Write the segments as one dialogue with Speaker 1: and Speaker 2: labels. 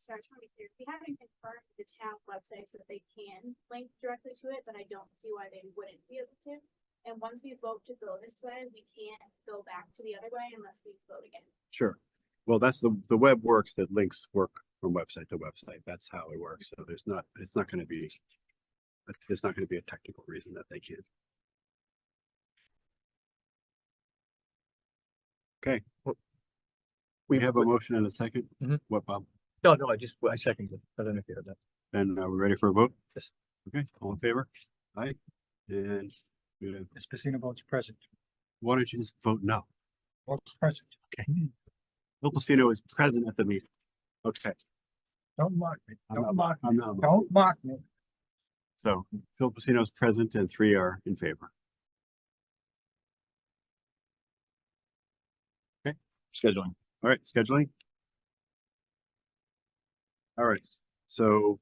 Speaker 1: sorry, I just wanna be clear, we haven't confirmed the town websites that they can link directly to it, but I don't see why they wouldn't be able to. And once we vote to go this way, we can't go back to the other way unless we vote again.
Speaker 2: Sure. Well, that's the, the web works that links work from website to website. That's how it works. So there's not, it's not gonna be. but There's not gonna be a technical reason that they can't. Okay. well, We have a Mm-hmm. motion and a second.
Speaker 3: Mhm.
Speaker 2: What, Bob?
Speaker 3: No, no, I just, I seconded. it. I don't know if you heard that.
Speaker 2: Then are we ready for a vote?
Speaker 3: Yes.
Speaker 2: Okay, all in favor? Aye. And uh,
Speaker 3: Ms. Pacino votes present.
Speaker 2: why don't you just vote no?
Speaker 3: Votes present. Okay.
Speaker 2: Bill Pacino is present at the meeting. Okay,
Speaker 3: Don't mock me.
Speaker 2: I'm
Speaker 3: Don't
Speaker 2: not-
Speaker 3: mock me.
Speaker 2: I'm not.
Speaker 3: Don't mock me.
Speaker 2: So Phil Pacino is present and three are in favor.
Speaker 4: scheduling.
Speaker 2: All right, scheduling. All right, so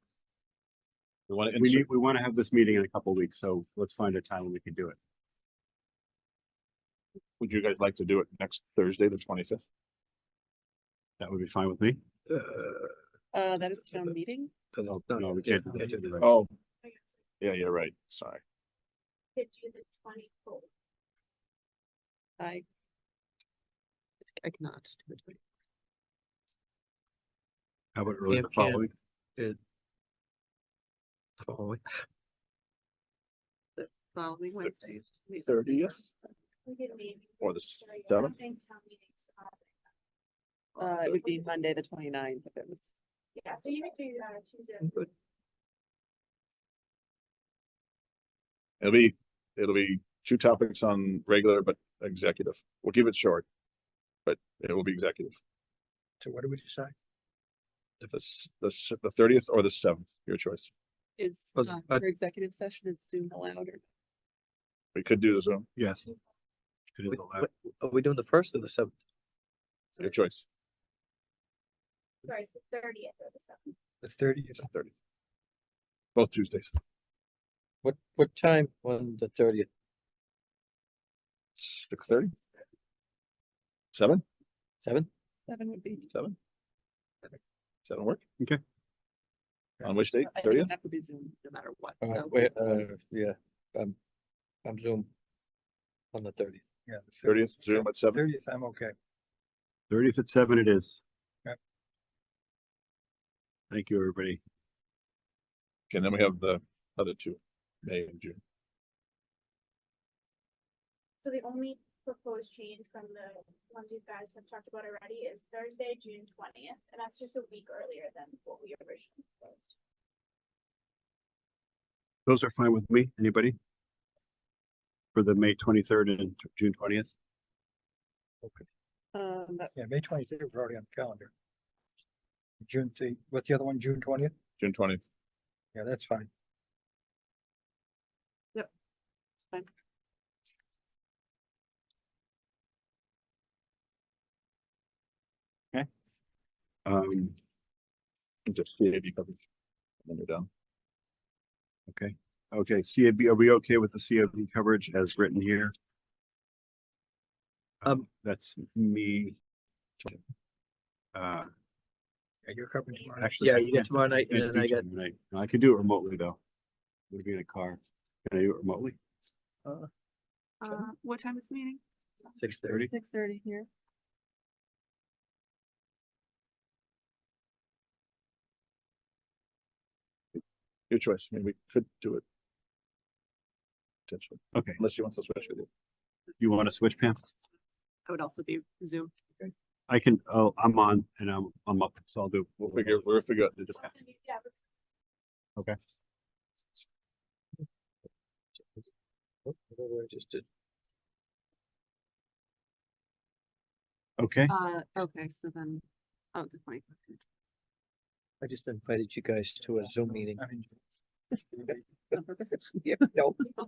Speaker 4: We want to
Speaker 2: we need,
Speaker 4: insert,
Speaker 2: we want to have this meeting in a couple weeks, so let's find a time when we can do it.
Speaker 4: would you guys like to do it next Thursday, the twenty-fifth?
Speaker 2: That would be fine with me.
Speaker 5: Uh, that is town meeting?
Speaker 2: No, no, we can't. do that.
Speaker 4: Oh,
Speaker 1: I guess
Speaker 4: yeah, you're right. Sorry.
Speaker 1: we Could do the twenty-fourth.
Speaker 5: I. I cannot do it.
Speaker 2: How about early
Speaker 3: Yeah,
Speaker 2: the
Speaker 3: we can't.
Speaker 2: following?
Speaker 6: Oh,
Speaker 5: Following Wednesdays. we-
Speaker 1: We could maybe.
Speaker 4: Or the
Speaker 1: Sorry, I
Speaker 4: seventh?
Speaker 1: think town meetings are-
Speaker 5: Uh, it would be Monday, the 29th. if it was,
Speaker 1: Yeah, so you could do, uh, Tuesday.
Speaker 5: Mm-hmm.
Speaker 4: It'll be, it'll be two topics on regular but executive. We'll keep it short. But it will be executive.
Speaker 3: So what do we decide?
Speaker 4: If it's the, s- the thirtieth or the seventh, your choice.
Speaker 5: is,
Speaker 2: But
Speaker 5: uh,
Speaker 2: I-
Speaker 5: for executive session is Zoom allowed or?
Speaker 4: We could do the Zoom,
Speaker 2: Yes. It is
Speaker 6: Wait,
Speaker 2: allowed.
Speaker 6: what- Are we doing the first or the seventh?
Speaker 4: your choice,
Speaker 1: Sorry, it's the thirtieth or the seventh.
Speaker 3: The thirtieth.
Speaker 4: thirtieth. Both Tuesdays,
Speaker 6: What, what time on the thirtieth?
Speaker 4: six thirty? Seven,
Speaker 6: Seven?
Speaker 5: Seven would be.
Speaker 4: seven? Seven work?
Speaker 2: Okay.
Speaker 4: On which date?
Speaker 5: I think it
Speaker 4: Thirtieth?
Speaker 5: would have to be Zoom no matter what.
Speaker 6: Uh,
Speaker 5: so-
Speaker 6: wait, uh, yeah, um, I'm Zoom. On the thirtieth.
Speaker 3: Yeah.
Speaker 4: Thirtieth, Zoom at seven?
Speaker 3: Thirtieth, I'm okay.
Speaker 2: Thirtieth at seven it is.
Speaker 3: Yep.
Speaker 2: Thank you, everybody.
Speaker 4: And then we have the other two, May and June.
Speaker 1: So the only proposed change from the ones you guys have talked about already is Thursday, June twentieth, and that's just a week earlier than what we originally proposed.
Speaker 2: Those are fine with me. Anybody? For the May twenty-third and June twentieth?
Speaker 5: Um, that-
Speaker 3: Yeah, May twenty-third, we're already on the calendar. June the, what's the other one? June twentieth?
Speaker 4: June twentieth.
Speaker 3: Yeah, that's fine.
Speaker 2: Um,
Speaker 4: Just CAB coverage. And then you're done.
Speaker 2: Okay, CAB, are we okay with the CAB coverage as written here? Um, that's me. Uh,
Speaker 3: Yeah, you're covering tomorrow.
Speaker 2: actually. I can't-
Speaker 6: tomorrow night
Speaker 2: can't do tomorrow night. No, I could do it remotely though. Would be in a car. Can I do it remotely?
Speaker 5: uh, what time is the meeting?
Speaker 6: Six
Speaker 2: Thirty?
Speaker 5: Six thirty here.
Speaker 4: Your choice. I mean, we could do it. Potentially,
Speaker 2: Okay,
Speaker 4: unless you want to switch with you.
Speaker 2: you want to switch, Pam?
Speaker 5: I would also be Zoom.
Speaker 2: I can, oh, I'm on and I'm, I'm up, so I'll do.
Speaker 4: We'll figure, we'll figure out.
Speaker 1: Awesome, yeah, but
Speaker 6: Oh, Whatever I just did.
Speaker 2: Okay,
Speaker 5: Uh, okay, so then, oh, the twenty.
Speaker 6: I just invited you guys to a Zoom meeting.
Speaker 3: I mean,
Speaker 5: On purpose?
Speaker 6: Yeah, no. I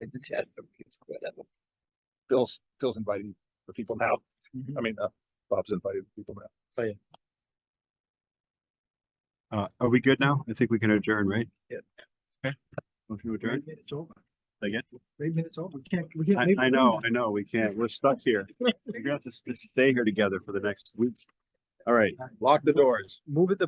Speaker 6: did that, but it's whatever.
Speaker 4: Phil's, Phil's inviting the people now.
Speaker 3: Mhm.
Speaker 4: I mean, uh, Bob's inviting the people now.
Speaker 2: uh, are we good now? I think we can adjourn, right?
Speaker 6: Yeah.
Speaker 2: Okay. Motion to adjourn?
Speaker 3: Three minutes over.
Speaker 2: Say Again?
Speaker 3: Three minutes over. We can't, we can't.
Speaker 2: I,
Speaker 3: leave
Speaker 2: I
Speaker 3: it.
Speaker 2: know, I know, we can't, we're stuck here. We're gonna have to s- stay here together for the next week. All right.
Speaker 4: Lock the doors.
Speaker 3: Move it the